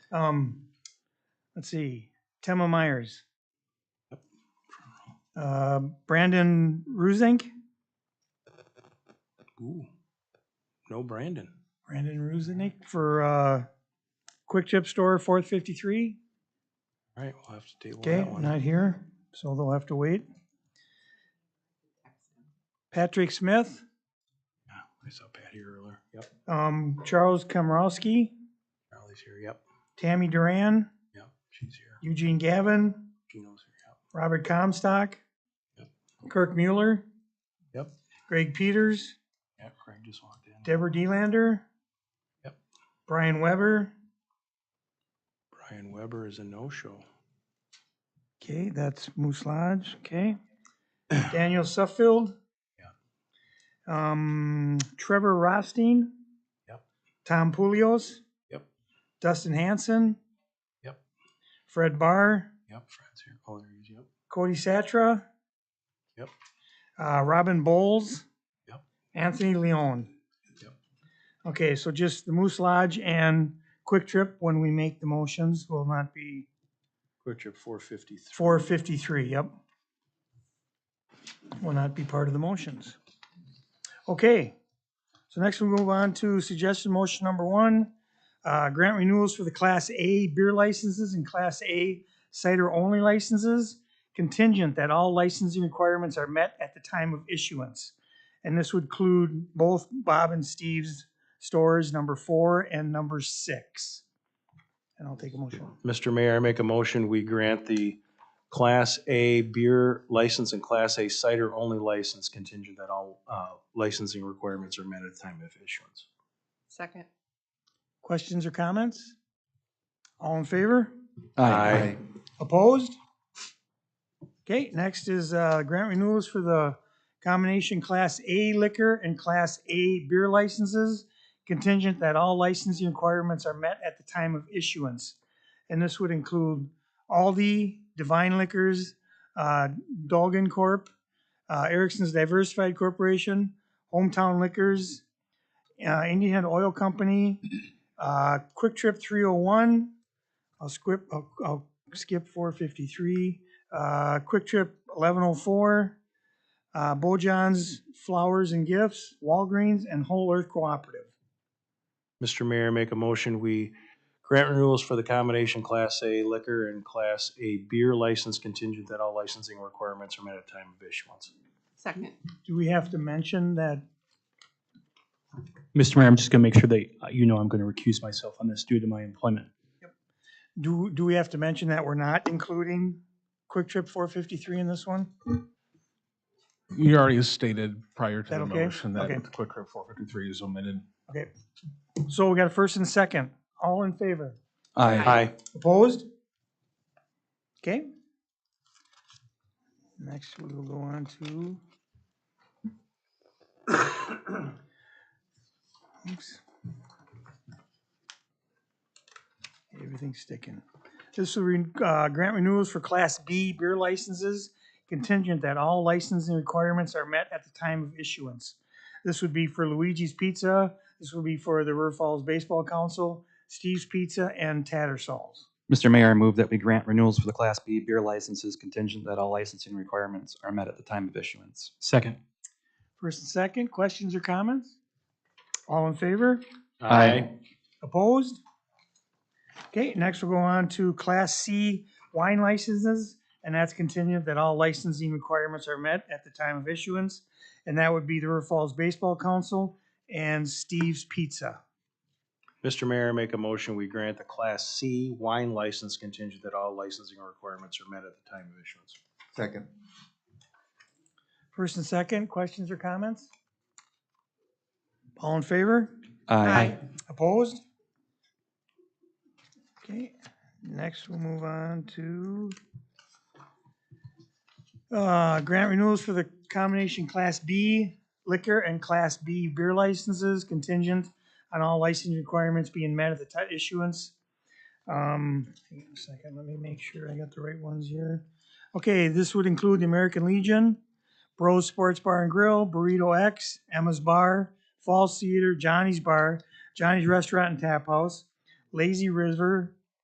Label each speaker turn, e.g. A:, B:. A: Um, let's see, Tema Myers. Uh, Brandon Ruzink?
B: Ooh. No Brandon.
A: Brandon Ruzink for, uh, Quick Chip Store, fourth fifty-three.
B: All right, we'll have to table
A: Okay,
B: that one.
A: not here, so they'll have to wait. Patrick Smith,
B: Yeah, I saw Pat here earlier. Yep.
A: um, Charles Komorowski,
B: Charlie's here. Yep.
A: Tammy Duran,
B: Yep. She's here.
A: Eugene Gavin,
B: Gino's here.
A: Robert Comstock,
B: Yep.
A: Kirk Mueller,
B: Yep. Yep.
A: Greg Peters,
B: Yeah, Craig just walked in.
A: Deborah Delander.
B: Yep.
A: Brian Weber.
B: Brian Weber is a no-show.
A: Okay, that's Moose Lodge, okay. Daniel Suffield. Yeah. Um, Trevor Rothstein.
B: Yep.
A: Tom Pulios.
B: Yep.
A: Dustin Hanson.
B: Yep.
A: Fred Barr,
B: Yep, Fred's here. Oh, there he is. Yep.
A: Cody Satra.
B: Yep.
A: Uh, Robin Bowles.
B: Yep.
A: Anthony Leon.
B: Yep.
A: Okay, so just the Moose Lodge and Quick Trip, when we make the motions, will not be
B: Quick Trip 453.
A: Four fifty-three, yep. Will not be part of the motions. Okay, so next we move on to suggestion motion number one. Uh, grant renewals for the Class A beer licenses and Class A cider-only licenses contingent that all licensing requirements are met at the time of issuance. And this would include both Bob and Steve's stores, number four and number six. And I'll take a motion.
B: Mr. Mayor, I make a motion, we grant the Class A beer license and Class A cider-only license contingent that all uh, licensing requirements are met at the time of issuance.
C: Second.
A: Questions or comments? All in favor?
B: Aye.
A: Opposed? Okay, next is uh, grant renewals for the combination Class A liquor and Class A beer licenses contingent that all licensing requirements are met at the time of issuance. And this would include Aldi, Divine Liquors, uh, Dolgan Corp., uh, Erickson's Diversified Corporation, Hometown Liquors, uh, Indian Head Oil Company, uh, Quick Trip 301. I'll skip, I'll- I'll skip four fifty-three, uh, Quick Trip eleven oh four, uh, Bojan's Flowers and Gifts, Walgreens, and Whole Earth Cooperative.
B: Mr. Mayor, make a motion, we grant renewals for the combination Class A liquor and Class A beer license contingent that all licensing requirements are met at time of issuance.
C: Second.
A: Do we have to mention that?
D: Mr. Mayor, I'm just going to make sure that uh, you know I'm going to recuse myself on this due to my employment.
A: Do, do we have to mention that we're not including Quick Trip four fifty-three in this one?
E: You already stated prior to
A: That
E: the
A: okay?
E: motion that
A: Okay.
E: the Quick Trip 453 is omitted.
A: Okay, so we got a first and a second. All in favor?
C: Aye.
A: Opposed? Okay. Next, we will go on to. Oops. Everything's sticking. This will re- uh, grant renewals for Class B beer licenses contingent that all licensing requirements are met at the time of issuance. This would be for Luigi's Pizza, this would be for the River Falls Baseball Council, Steve's Pizza, and Tattersalls.
F: Mr. Mayor, I move that we grant renewals for the Class B beer licenses contingent that all licensing requirements are met at the time of issuance.
D: Second.
A: First and second, questions or comments? All in favor?
F: Aye.
A: Opposed? Okay, next we'll go on to Class C wine licenses, and that's contingent that all licensing requirements are met at the time of issuance. And that would be the River Falls Baseball Council and Steve's Pizza.
B: Mr. Mayor, make a motion, we grant the Class C wine license contingent that all licensing requirements are met at the time of issuance.
G: Second.
A: First and second, questions or comments? All in favor?
F: Aye.
A: Opposed? Okay, next we'll move on to uh, grant renewals for the combination Class B liquor and Class B beer licenses contingent on all license requirements being met at the ti- issuance. Um, hang on a second, let me make sure I got the right ones here. Okay, this would include the American Legion, Bros Sports Bar and Grill, Burrito X, Emma's Bar, Falls Theater, Johnny's Bar, Johnny's Restaurant and Tap House, Lazy River,